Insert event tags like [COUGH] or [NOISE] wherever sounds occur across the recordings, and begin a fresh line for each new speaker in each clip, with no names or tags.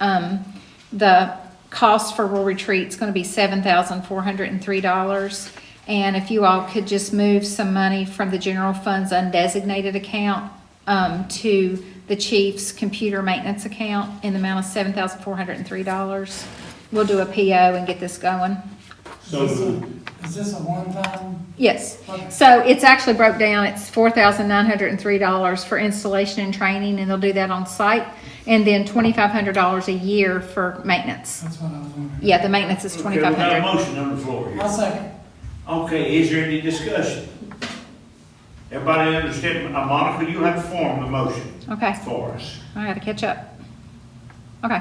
Um, the cost for Rural Retreat's gonna be seven thousand four hundred and three dollars. And if you all could just move some money from the general fund's undesignated account, um, to the chief's computer maintenance account in the amount of seven thousand four hundred and three dollars. We'll do a PO and get this going.
So
Is
moved.
this- Is this a one-time?
Yes.
Okay.
So it's actually broke down, it's four thousand nine hundred and three dollars for installation and training, and they'll do that on site. And then twenty-five hundred dollars a year for maintenance.
That's what I was wondering.
Yeah, the maintenance is
Okay, we
twenty-five
got a
hundred.
motion on the floor here.
I'll second.
Okay, is there any discussion? Everybody understand, Uh, Monica, you have formed the motion
Okay,
for us.
I gotta catch up. Okay,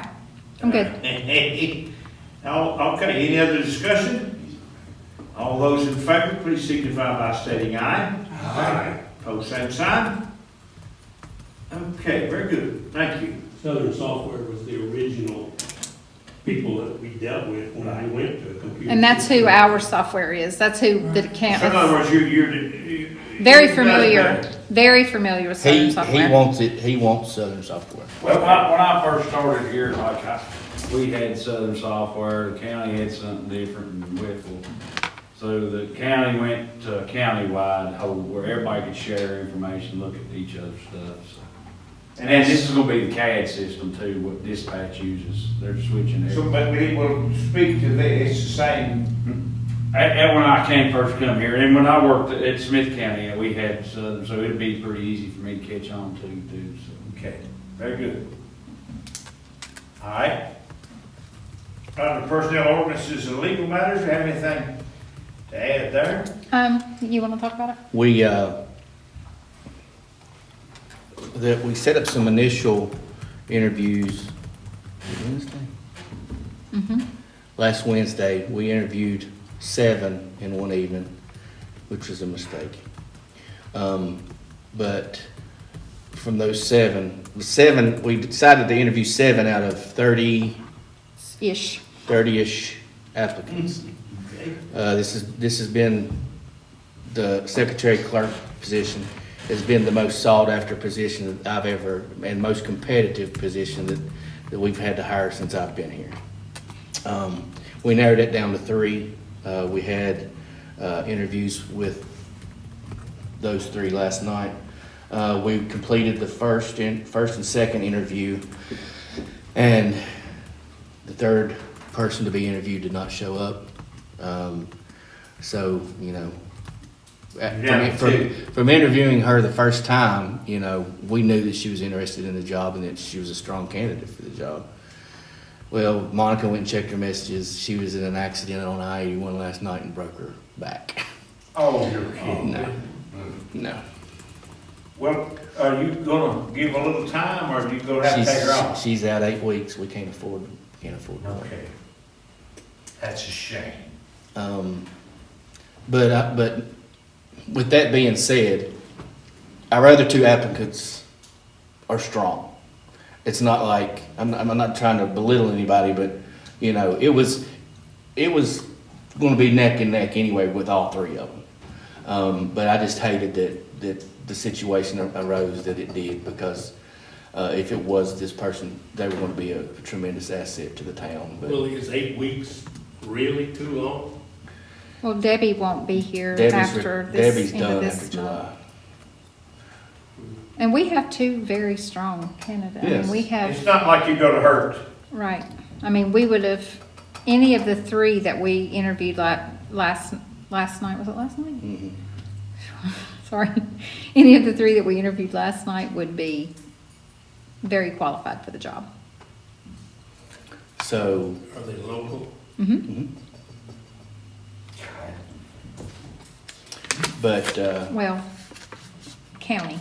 I'm good.
[LAUGHS] Now, okay, any other discussion? All those in favor, please signify by stating aye. Aye. Pose same sign. Okay, very good, thank you.
Southern Software was the original people that we dealt with when I went to a computer.
And that's who
system.
our software is, that's who the account,
So in other words, you're, you're. you-
very
you're-
familiar, very familiar with
He,
Southern
he
Software.
wants it, he wants Southern Software.
Well, when I, when I first started here, like I, we had Southern Software, the county had something different in Whipple. So the county went to a countywide hold where everybody could share information, look at each other's stuff, so. And then this is gonna be the CAD system too, what dispatch uses, they're switching
So,
it.
but we will speak to that, it's the same
At, at when I came first come here, and when I worked at Smith County, we had Southern, so it'd be pretty easy for me to catch on to too, so.
Okay, very good. All right. Under personnel ordinances and legal matters, do you have anything to add there?
Um, you wanna talk about it?
We, uh, that, we set up some initial interviews Wednesday?
Mm-hmm.
Last Wednesday, we interviewed seven in one evening, which was a mistake. Um, but from those seven, the seven, we decided to interview seven out of thirty,
Ish.
thirty-ish applicants. Uh, this is, this has been, the secretary clerk position has been the most sought-after position that I've ever, and most competitive position that, that we've had to hire since I've been here. Um, we narrowed it down to three. Uh, we had, uh, interviews with those three last night. Uh, we completed the first and, first and second interview, and the third person to be interviewed did not show up. Um, so, you know, at-
Yeah,
from,
two.
from, from interviewing her the first time, you know, we knew that she was interested in the job and that she was a strong candidate for the job. Well, Monica went and checked her messages. She was in an accident on I eighty one last night and broke her back. [LAUGHS]
Oh, you're kidding.
No, no.
Well, are you gonna give a little time, or are you gonna have to take her
She's,
off?
she's out eight weeks. We can't afford, can't afford. her.
Okay. That's a shame.
Um, but, I- but with that being said, our other two applicants are strong. It's not like, I'm, I'm not trying to belittle anybody, but, you know, it was, it was gonna be neck and neck anyway with all three of them. Um, but I just hated that, that the situation arose that it did because, uh, if it was this person, they were gonna be a tremendous asset to the town, but.
Really, is eight weeks really too long?
Well, Debbie won't be here
Debbie's re-
after
Debbie's
this, end of
done after
this month.
July.
And we have two very strong candidates. I mean,
Yes.
we have,
It's not like you're gonna hurt.
right, I mean, we would have, any of the three that we interviewed la- last, last night, was it last night?
Mhm.
[LAUGHS] Sorry, any of the three that we interviewed last night would be very qualified for the job.
So,
Are they local?
Mhm.
Mm-hmm. but, uh,
Well, county,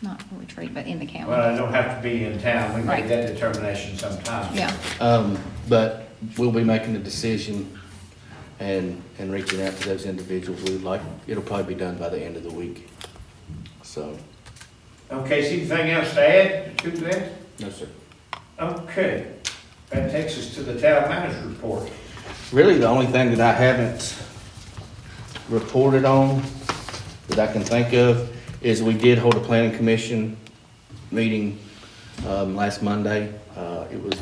not retreat, but in the county,
Well, I don't have to be in town, we make
Right.
that determination sometime.
yeah.
um, but we'll be making the decision and, and reaching out to those individuals we'd like. It'll probably be done by the end of the week. So,
Okay, see anything else to add to that?
no, sir.
Okay, that takes us to the town manager's report.
Really, the only thing that I haven't reported on that I can think of is we did hold a planning commission meeting um, last Monday. Uh, It was